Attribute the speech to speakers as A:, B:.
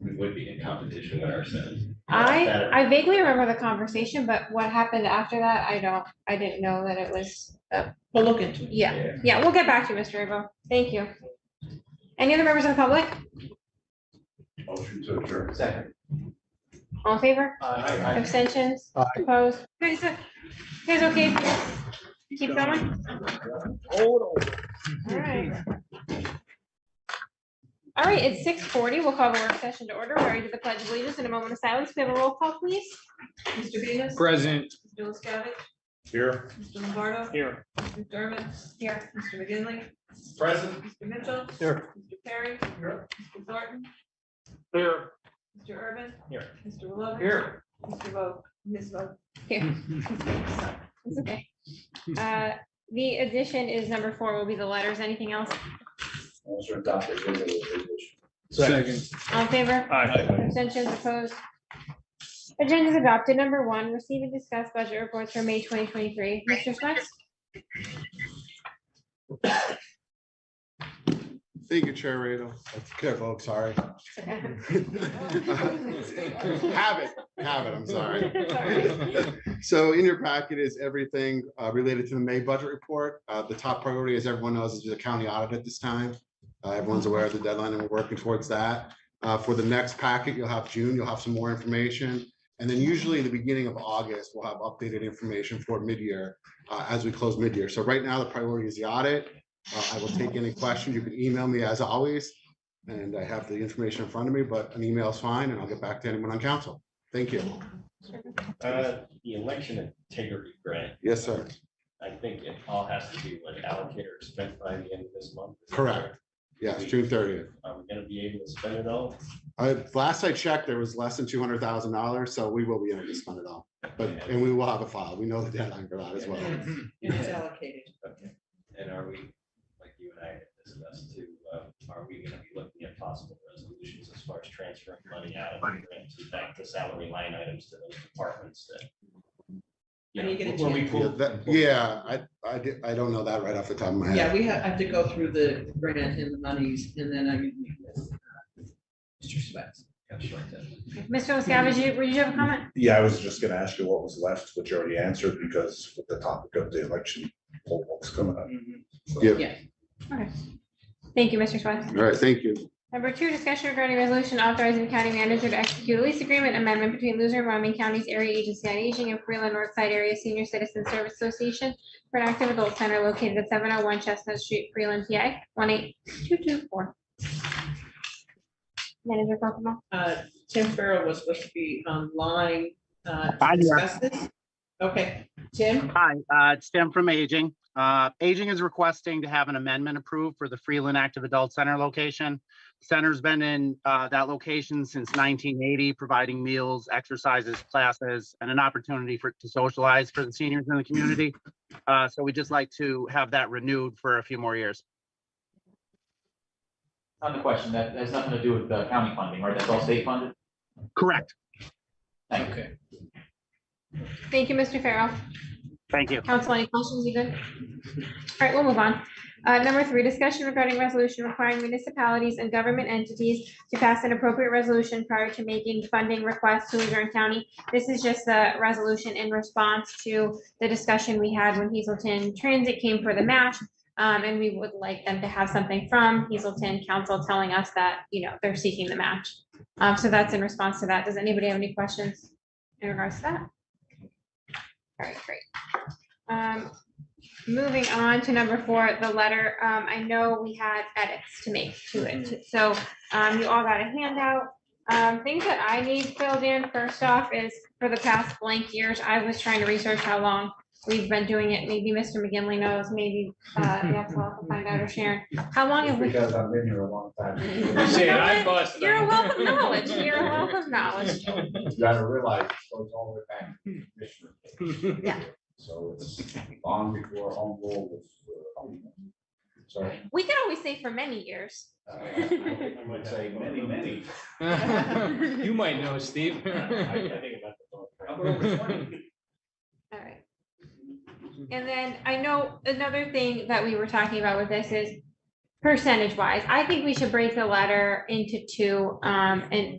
A: we would be in competition with ourselves.
B: I,
A: That-
B: I vaguely remember the conversation, but what happened after that, I don't, I didn't know that it was, uh,
C: We'll look into it.
B: yeah, yeah, we'll get back to you, Mr. Abo. Thank you. Any other members of the public?
D: Motion to adjourn.
A: Second.
B: All in favor?
A: Uh, Aye.
B: Abstentions? Opposed? Guys, uh, guys, okay? if you Keep going? All right. All right, it's six forty. We'll call the work session to order. We're ready to the pledge of allegiance in a moment of silence. Can we have a roll call, please?
E: Mr. Venus.
F: Present.
E: Mr. LaScavitch.
D: Here.
E: Mr. Lombardo.
F: Here.
E: Mr. McDermott.
B: Here.
E: Mr. McGinley.
D: Present.
E: Mr. Mitchell.
F: Here.
E: Mr. Perry.
D: Here.
E: Mr. Thornton.
F: Here.
E: Mr. Urban.
F: Here.
E: Mr. Lovett.
F: Here.
E: Mr. Vogt. Ms. Vogt.
B: It's okay. Uh, The addition is number four will be the letters. Anything else?
D: Motion adopted.
F: Second.
B: All in favor?
F: Aye.
B: Abstentions opposed? Agenda is adopted. Number one, receive and discuss budget reports for May twenty twenty-three. Mr. Swets?
G: Thank you, Chair Rado. Careful, I'm sorry. Have it, have it, I'm sorry. So in your packet is everything uh, related to the May budget report. Uh, The top priority, as everyone knows, is the county audit at this time. Uh, Everyone's aware of the deadline and we're working towards that. Uh, For the next packet, you'll have June, you'll have some more information. And then usually the beginning of August, we'll have updated information for mid-year uh, as we close mid-year. So right now, the priority is the audit. Uh, I will take any questions. You can email me as always. And I have the information in front of me, but an email is fine and I'll get back to anyone on council. Thank you.
A: Uh, The election integrity grant,
G: Yes, sir.
A: I think it all has to be like allocated or spent by the end of this month. Is that
G: Correct. Yes, June thirtieth.
A: Are we gonna be able to spend it all?
G: I, last I checked, there was less than two hundred thousand dollars, so we will be able to spend it all. But, and we will have a file. We know the deadline for that as well.
E: It is allocated.
A: Okay. And are we, like you and I had discussed too, uh, are we gonna be looking at possible resolutions as far as transferring money out of the grant to back to salary line items to those departments that? you
E: Are you
A: know,
E: gonna
A: where we
E: change-
G: Yeah,
A: pull-
G: that- yeah, I, I, di- I don't know that right off the top of my
E: Yeah,
G: head.
E: we have, have to go through the grant and the monies and then I can meet with uh, Mr. Swets.
A: Gosh, like that.
B: Mr. Miscavige, you- would you have a comment?
D: Yeah, I was just gonna ask you what was left, which you already answered because with the topic of the election, poll books coming up.
F: Mm-hmm.
B: Thank you, Mr. Swets.
G: All right, thank you.
B: Number two, discussion regarding resolution authorizing the county manager to execute a lease agreement amendment between Luzerne, Wyoming County's Area Agency on Aging and Freeland Northside Area Senior Citizen Service Association for an active adult center located at seven oh one Chestnut Street, Freeland, PA, one eight two two four. Manager Kokomo,
E: Uh, Tim Farrell was supposed to be online. uh, to
H: Hi, dear.
E: discuss this. Okay, Tim?
H: Hi, uh, it's Tim from Aging. Uh, Aging is requesting to have an amendment approved for the Freeland Active Adult Center location. Center's been in uh, that location since 1980, providing meals, exercises, classes, and an opportunity for, to socialize for the seniors in the community. Uh, So we'd just like to have that renewed for a few more years.
I: On the question, that has nothing to do with the county funding, right? That's all state funded?
H: Correct.
I: Thank you.
B: thank you, Mr. Farrell.
H: Thank you.
B: Council, any questions you good? All right, we'll move on. Uh, number three, discussion regarding resolution requiring municipalities and government entities to pass an appropriate resolution prior to making funding requests to Luzerne County. This is just the resolution in response to the discussion we had when Hazelton Transit came for the match. Um, and we would like them to have something from Hazelton Council telling us that, you know, they're seeking the match. Um, so that's in response to that. Does anybody have any questions in regards to that? All right, great. Um, moving on to number four, the letter, um, I know we had edits to make to it, so, um, you all got a handout. Um, things that I need filled in, first off, is for the past blank years, I was trying to research how long we've been doing it, maybe Mr. McGinley knows, maybe, uh, yeah, so I'll find out, or Sharon, how long have we?
D: Because I've been here a long time.
F: Shit, I busted.
B: You're a
F: him.
B: wealth of knowledge, you're a wealth of knowledge.
D: You gotta realize it goes all the way back to Commissioner.
B: Yeah.
D: So it's long before home rule was. uh, home. So uh,
B: We can always say for many years.
D: I would say many, many.
F: You might know, Steve.
D: Number over 20.
B: All right. And then I know another thing that we were talking about with this is percentage wise, I think we should break the letter into two, um, and